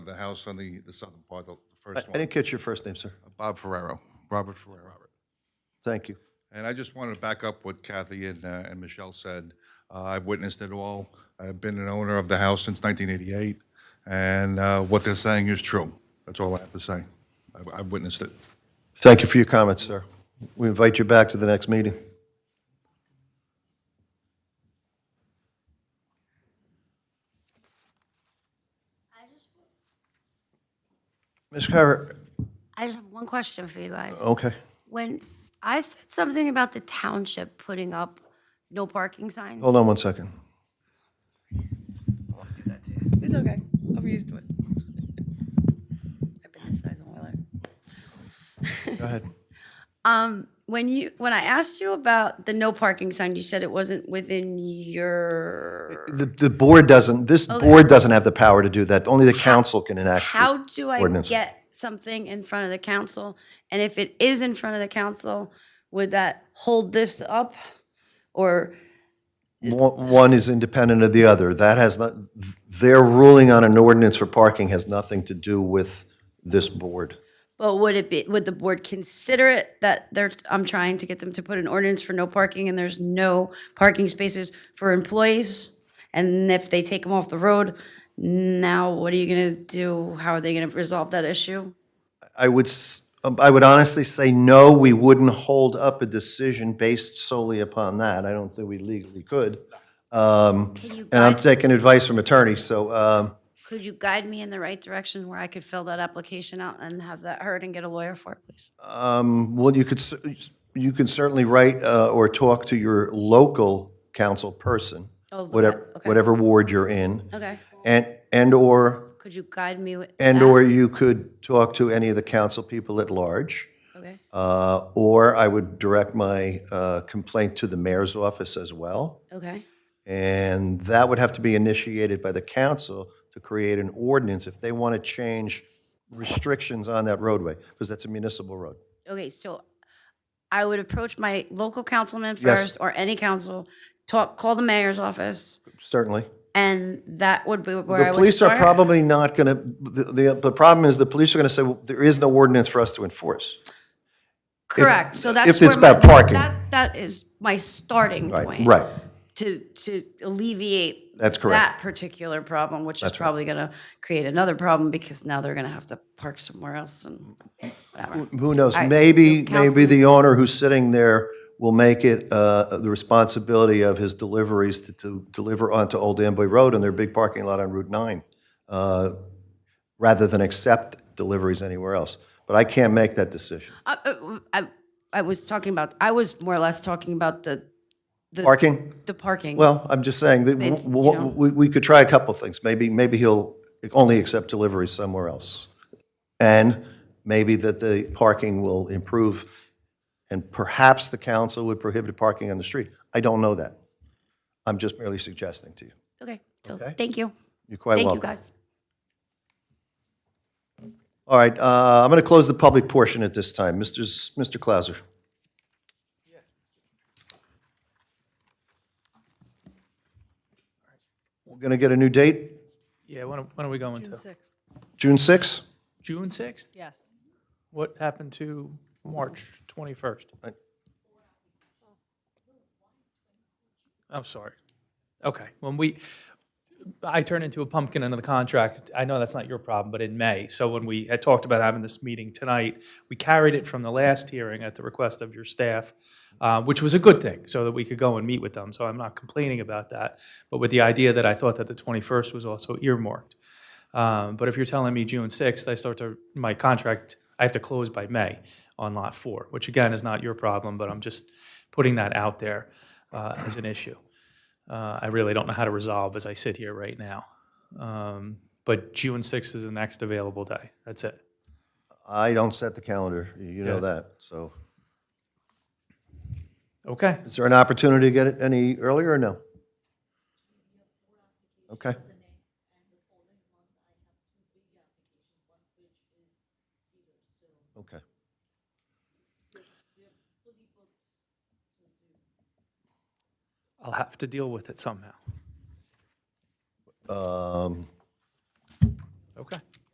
the house on the, the southern part, the the first I one. didn't catch your first name, sir. Bob Ferrero, Robert Ferrero. Thank you. And I just wanted to back up what Kathy and, uh, and Michelle said. Uh, I've witnessed it all. I've been an owner of the house since 1988, and uh, what they're saying is true. That's all I have to say. I've- I've witnessed it. Thank you for your comments, sir. We invite you back to the next meeting. Ms. Carver, I just have one question for you guys. okay. When I said something about the township putting up no parking signs, Hold on one second. It's okay. I'm used to it. I've been this size all my life. Go ahead. when you, when I asked you about the no parking sign, you said it wasn't within your, The, the board doesn't, this board doesn't have the power to do that. Only the council can enact. it. how do I Ordinance. get something in front of the council? And if it is in front of the council, would that hold this up? Or, One one is independent of the other. That has not, their ruling on an ordinance for parking has nothing to do with this board. but would it be, would the board consider it that they're, I'm trying to get them to put an ordinance for no parking and there's no parking spaces for employees? And if they take them off the road, now what are you gonna do? How are they gonna resolve that issue? I would, s- um, I would honestly say, no, we wouldn't hold up a decision based solely upon that. I don't think we legally could. Um, Can you And I'm guide- taking advice from attorneys, so um, Could you guide me in the right direction where I could fill that application out and have that heard and get a lawyer for it, please? Well, you could, cer- you could certainly write uh, or talk to your local council person, Oh, look whatever, at- okay. whatever ward you're in. Okay, And, and/or, could you guide me with? and/or you could talk to any of the council people at large. Okay, uh, Or I would direct my uh, complaint to the mayor's office as well. okay, And that would have to be initiated by the council to create an ordinance if they want to change restrictions on that roadway, because that's a municipal road. okay, so I would approach my local councilman Yes. first or any council, talk, call the mayor's office, Certainly. and that would be where I The would police are start. probably not going to, the, the problem is the police are going to say, well, there is no ordinance for us to enforce. Correct, so that's. if it's where my- about parking. that- That is my starting Right, point. right. to to alleviate That's correct. that particular problem, which is probably going to create another problem because now they're going to have to park somewhere else and whatever. Who knows? Maybe, maybe Councilman. the owner who's sitting there will make it uh, the responsibility of his deliveries to- to deliver onto Old Amboy Road and their big parking lot on Route 9, uh, rather than accept deliveries anywhere else. But I can't make that decision. I, Uh, I- I I was talking about I was more or less talking about the Parking? the parking. Well, I'm just saying that w- It's, you w- know. we we could try a couple things. Maybe, maybe he'll only accept deliveries somewhere else. And maybe that the parking will improve, and perhaps the council would prohibit parking on the street. I don't know that. I'm just merely suggesting to you. okay, so Okay. thank you, You're quite thank welcome. you guys. All right, uh, I'm going to close the public portion at this time. Mr. S- Mr. Clauser. We're going to get a new date, Yeah, when, are- when are we going to? Sixth. June 6th? June 6th? Yes. What happened to March 21st? I- I'm sorry. Okay, when we, I turned into a pumpkin under the contract. I know that's not your problem, but in May. So when we had talked about having this meeting tonight, we carried it from the last hearing at the request of your staff, uh, which was a good thing, so that we could go and meet with them. So I'm not complaining about that, but with the idea that I thought that the 21st was also earmarked. Um, But if you're telling me June 6th, I start to, my contract, I have to close by May on Lot 4, which again is not your problem, but I'm just putting that out there uh, as an issue. Uh, I really don't know how to resolve as I sit here right now. Um, But June 6th is the next available day. That's it. I don't set the calendar, you know that, so. Okay. Is there an opportunity to get it any earlier or no? Okay. Okay. I'll have to deal with it somehow. Um, Okay.